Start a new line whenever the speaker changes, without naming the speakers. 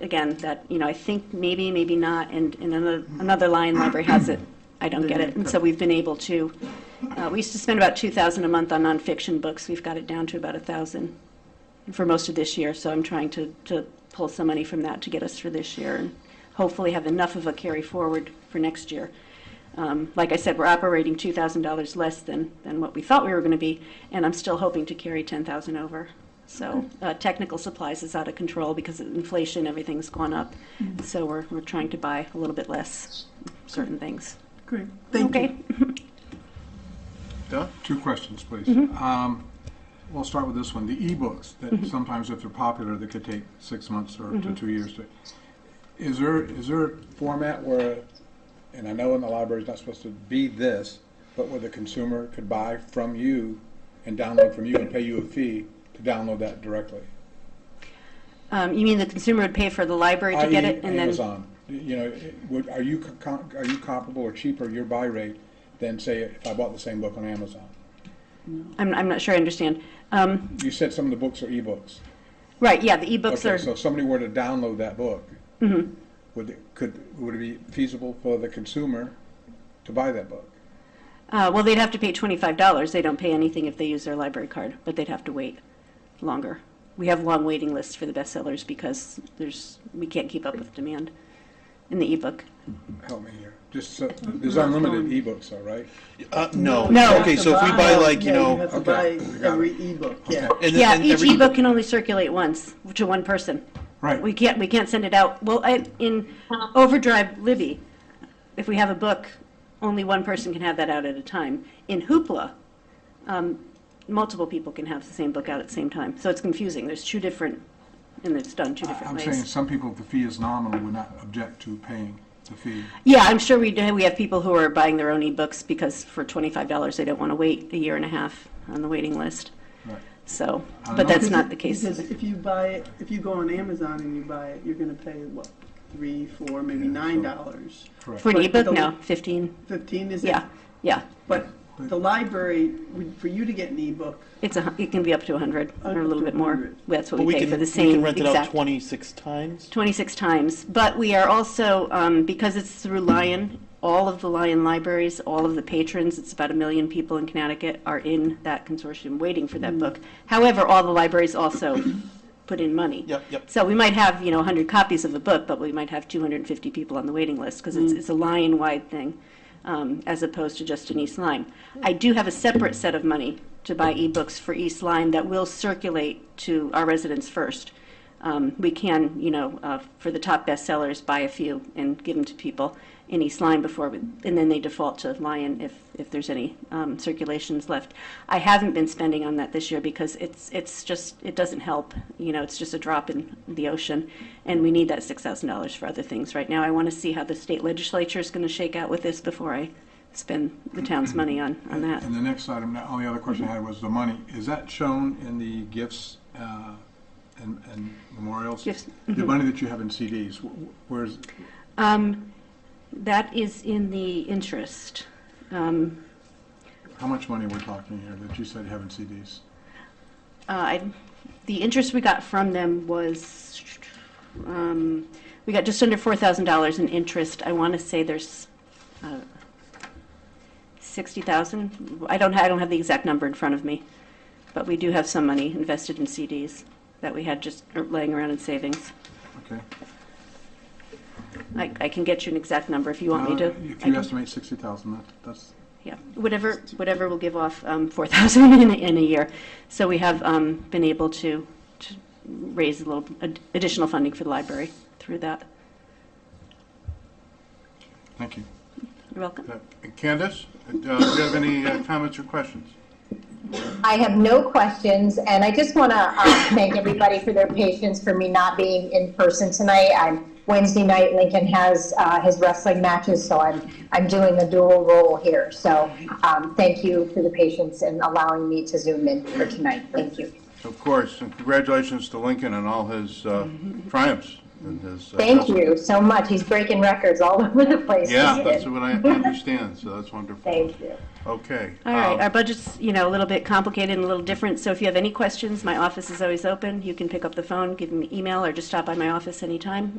again, that, you know, I think maybe, maybe not, and in another, another line, library has it, I don't get it. And so we've been able to, uh, we used to spend about 2,000 a month on nonfiction books. We've got it down to about 1,000 for most of this year, so I'm trying to, to pull some money from that to get us through this year and hopefully have enough of a carry forward for next year. Um, Like I said, we're operating $2,000 less than, than what we thought we were going to be, and I'm still hoping to carry 10,000 over. So uh, technical supplies is out of control because of inflation, everything's gone up.
Mm-hmm.
So we're, we're trying to buy a little bit less certain things.
Great, thank
Okay,
you.
Don?
Two questions, please.
Mm-hmm.
Um, We'll start with this one, the ebooks, that sometimes if they're popular, they could take six months or
Mm-hmm.
to two years to, is there, is there a format where, and I know in the library it's not supposed to be this, but where the consumer could buy from you and download from you and pay you a fee to download that directly?
Um, you mean the consumer would pay for the library to get it
i.e.
and then?
E Amazon, you know, would, are you, co- are you comparable or cheaper, your buy rate, than say if I bought the same book on Amazon?
I'm, I'm not sure I understand. Um,
You said some of the books are ebooks.
Right, yeah, the ebooks
Okay,
are.
so if somebody were to download that book, Mm-hmm. would it, could, would it be feasible for the consumer to buy that book?
Uh, well, they'd have to pay twenty-five dollars. They don't pay anything if they use their library card, but they'd have to wait longer. We have long waiting lists for the bestsellers because there's, we can't keep up with demand in the ebook.
Help me here. Just, so- there's unlimited ebooks, though, right?
Uh, no.
No.
You
No.
have
Okay,
to
so if we buy like, you
yeah,
know.
You have to
Okay,
buy
I got
every ebook, yeah.
Okay.
and then-
Yeah,
and
each
every-
ebook can only circulate once to one person.
Right.
We can't, we can't send it out. Well, I, in Overdrive Libby, if we have a book, only one person can have that out at a time. In Hoopla, um, multiple people can have the same book out at the same time. So it's confusing. There's two different, and it's done two
I-
different
I'm
ways.
saying some people, if the fee is nominal, would not object to paying the fee.
Yeah, I'm sure we do. We have people who are buying their own ebooks because for twenty-five dollars, they don't want to wait a year and a half on the waiting list.
Right.
So,
I don't
but
know.
that's not the case.
Because if you buy it, if you go on Amazon and you buy it, you're gonna pay, what, three, four, maybe
Yeah,
nine
so-
dollars?
Correct.
For an
but
ebook,
the-
no, fifteen.
Fifteen, is it?
Yeah, yeah.
But the library, would- for you to get an ebook,
It's a, hun- it can be up to a hundred or a
Up
little
to
bit more.
100.
That's
But
what we pay
can-
for the
We
same
can rent it out
exact.
twenty-six times.
Twenty-six times. But we are also, um, because it's through Lion, all of the Lion libraries, all of the patrons, it's about a million people in Connecticut are in that consortium waiting for that book. However, all the libraries also put in money.
Yep, yep.
So we might have, you know, 100 copies of a book, but we might have 250 people on the waiting list because it's, it's a Lion-wide thing um, as opposed to just in East Lyme. I do have a separate set of money to buy ebooks for East Lyme that will circulate to our residents first. Um, we can, you know, uh, for the top bestsellers, buy a few and give them to people in East Lyme before, we, and then they default to Lion if, if there's any um, circulations left. I haven't been spending on that this year because it's, it's just, it doesn't help. You know, it's just a drop in the ocean, and we need that $6,000 for other things right now. I want to see how the state legislature is going to shake out with this before I spend the town's money on, on that.
And the next item, the only other question I had was the money. Is that shown in the gifts uh, and and memorials?
Gifts, Mm-hmm.
The money that you have in CDs, wh- wh- where's,
Um, that is in the interest. Um,
how much money we're talking here that you said you have in CDs?
Uh, I- The interest we got from them was, um, we got just under $4,000 in interest. I want to say there's uh, 60,000. I don't, ha- I don't have the exact number in front of me, but we do have some money invested in CDs that we had just er, laying around in savings.
Okay.
I I can get you an exact number if you want me
Uh,
to.
If
I
you
can-
estimate sixty thousand, that, that's,
Yeah, whatever, whatever will give off um, 4,000 in, a- in a year. So we have um, been able to, to raise a little ad- additional funding for the library through that.
thank you.
You're welcome.
Uh, Candace, uh, do you have any uh, comments or questions?
I have no questions, and I just want to uh, thank everybody for their patience for me not being in person tonight. I'm Wednesday night. Lincoln has uh, his wrestling matches, so I'm I'm doing the dual role here. So um, thank you for the patience and allowing me to zoom in for tonight. Thank you.
Of course, and congratulations to Lincoln and all his uh, triumphs
and his. uh,
Thank
customers.
you so much. He's breaking records all over the place.
Yeah,
He's
that's
good.
what I understand, so that's wonderful.
Thank you.
Okay.
All right,
um,
our budget's, you know, a little bit complicated and a little different, so if you have any questions, my office is always open. You can pick up the phone, give me an email, or just stop by my office anytime,